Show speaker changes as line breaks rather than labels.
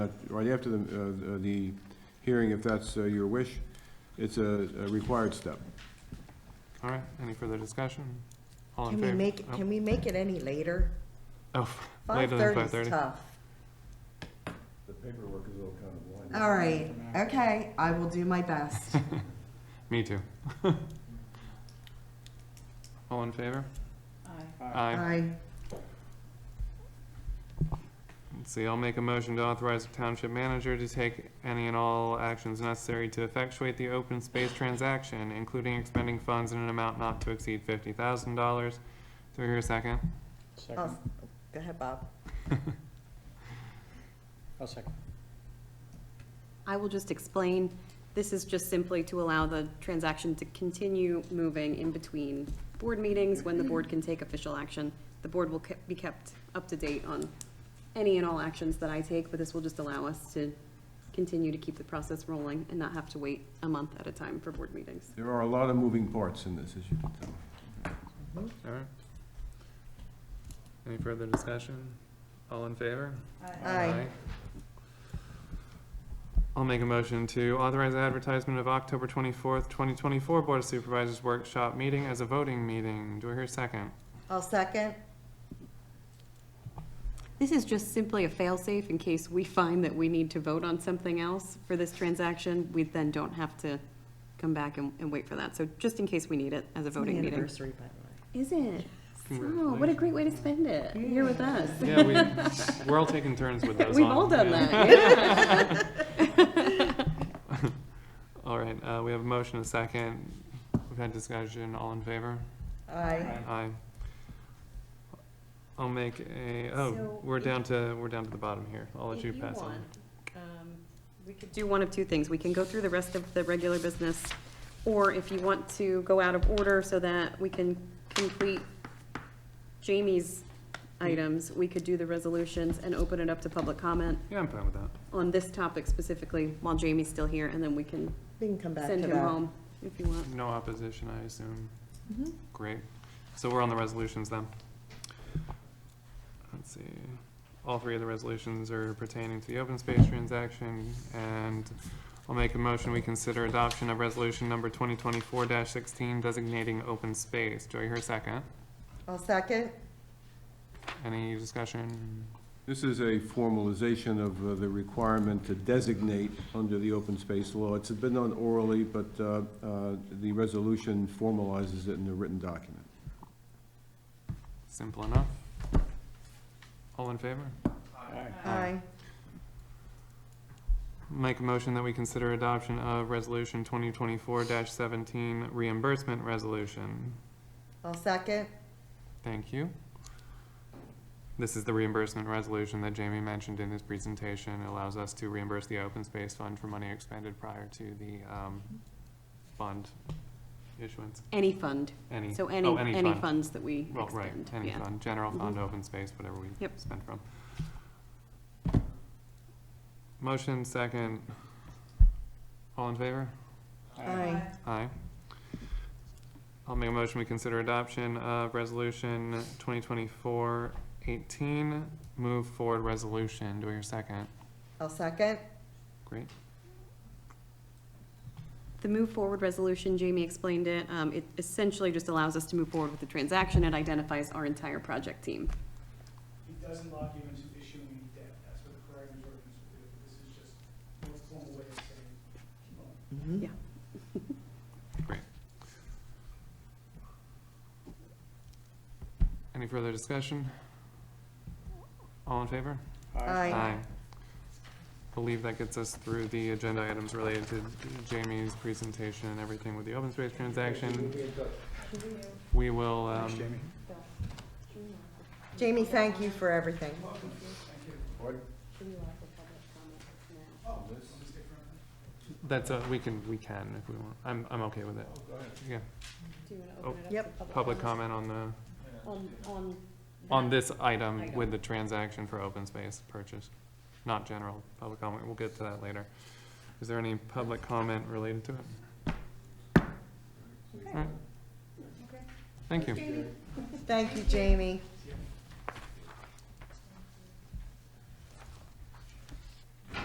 Uh, Right after the, uh, uh, the hearing, if that's uh, your wish, it's a a required step.
All right, any further discussion? All in
Can we
favor?
make,
Oh,
can we make it any later?
Oh,
Five
later than
thirty
5:30.
is tough.
The paperwork is all kind of
All right, okay, I will do my best.
me too. All in favor? Aye.
I,
Let's see, I'll make a motion to authorize the township manager to take any and all actions necessary to effectuate the open space transaction, including expending funds in an amount not to exceed fifty thousand dollars. Do we hear a second?
I'll- go ahead, Bob.
I'll second.
I will just explain, this is just simply to allow the transaction to continue moving in between board meetings when the board can take official action. The board will ke- be kept up to date on any and all actions that I take, but this will just allow us to continue to keep the process rolling and not have to wait a month at a time for board meetings.
There are a lot of moving parts in this, as you can tell.
All right. Any further discussion? All in favor?
Aye.
I'll make a motion to authorize advertisement of October twenty-fourth, twenty twenty-four Board of Supervisors Workshop Meeting as a voting meeting. Do I hear a second?
I'll second.
This is just simply a fail-safe in case we find that we need to vote on something else for this transaction. We then don't have to come back and, and wait for that. So just in case we need it as a voting meeting.
Anniversary, by the
Is it? So, what a great way to spend it. You're with us.
Yeah, we, we're all taking turns with those.
We've
on,
all done
yeah.
that, yeah.
All right, uh, we have a motion, a second. We've had discussion. All in favor?
way. I,
Aye. I'll make a,
So
oh, we're
if-
down to, we're down to the bottom here. I'll let
If
you
you
pass on.
want, um, we could
Do one of two things. We can go through the rest of the regular business, or if you want to go out of order so that we can complete Jamie's items, we could do the resolutions and open it up to public comment
Yeah, I'm fine with that.
on this topic specifically while Jamie's still here, and then we can
we can come back to
send him
that.
home if you want.
No opposition, I assume.
Mhm.
Great. So we're on the resolutions then. Let's see. All three of the resolutions are pertaining to the open space transaction, and I'll make a motion, we consider adoption of resolution number twenty twenty-four sixteen designating open space. Do I hear a second?
I'll second.
Any discussion?
This is a formalization of uh, the requirement to designate under the open space law. It's been done orally, but uh, uh, the resolution formalizes it in a written document.
Simple enough. All in favor?
I,
Make a motion that we consider adoption of resolution twenty twenty-four seventeen reimbursement resolution.
I'll second.
Thank you. This is the reimbursement resolution that Jamie mentioned in his presentation. It allows us to reimburse the open space fund for money expended prior to the, um, fund issuance,
Any fund,
any.
so any,
oh,
any
fund.
funds that we
Well, right,
expend,
any
yeah.
fund, general fund,
Mhm.
open space, whatever we
Yep.
spend from. Motion second. All in favor?
I,
Aye. I'll make a motion, we consider adoption of resolution 2024-18, move forward resolution. Do I hear a second?
I'll second.
Great.
The move forward resolution, Jamie explained it, um, it essentially just allows us to move forward with the transaction. It identifies our entire project team.
It doesn't lock you into issuing debt, that's what the paragraphs ordinance would do, this is just a formal way of saying, keep on.
Mhm.
Yeah.
Any further discussion? All in favor?
I,
Believe that gets us through the agenda items related to Jamie's presentation and everything with the open space transaction. We will, um,
Jamie, thank you for everything.
that's, a- we can, we can if we want. I'm, I'm okay with it. Yeah,
Yep.
Oh, public comment on the,
On, on.
on this item with the transaction for open space purchase, not general public comment. We'll get to that later. Is there any public comment related to it? All right. Thank you.
Thank you, Jamie.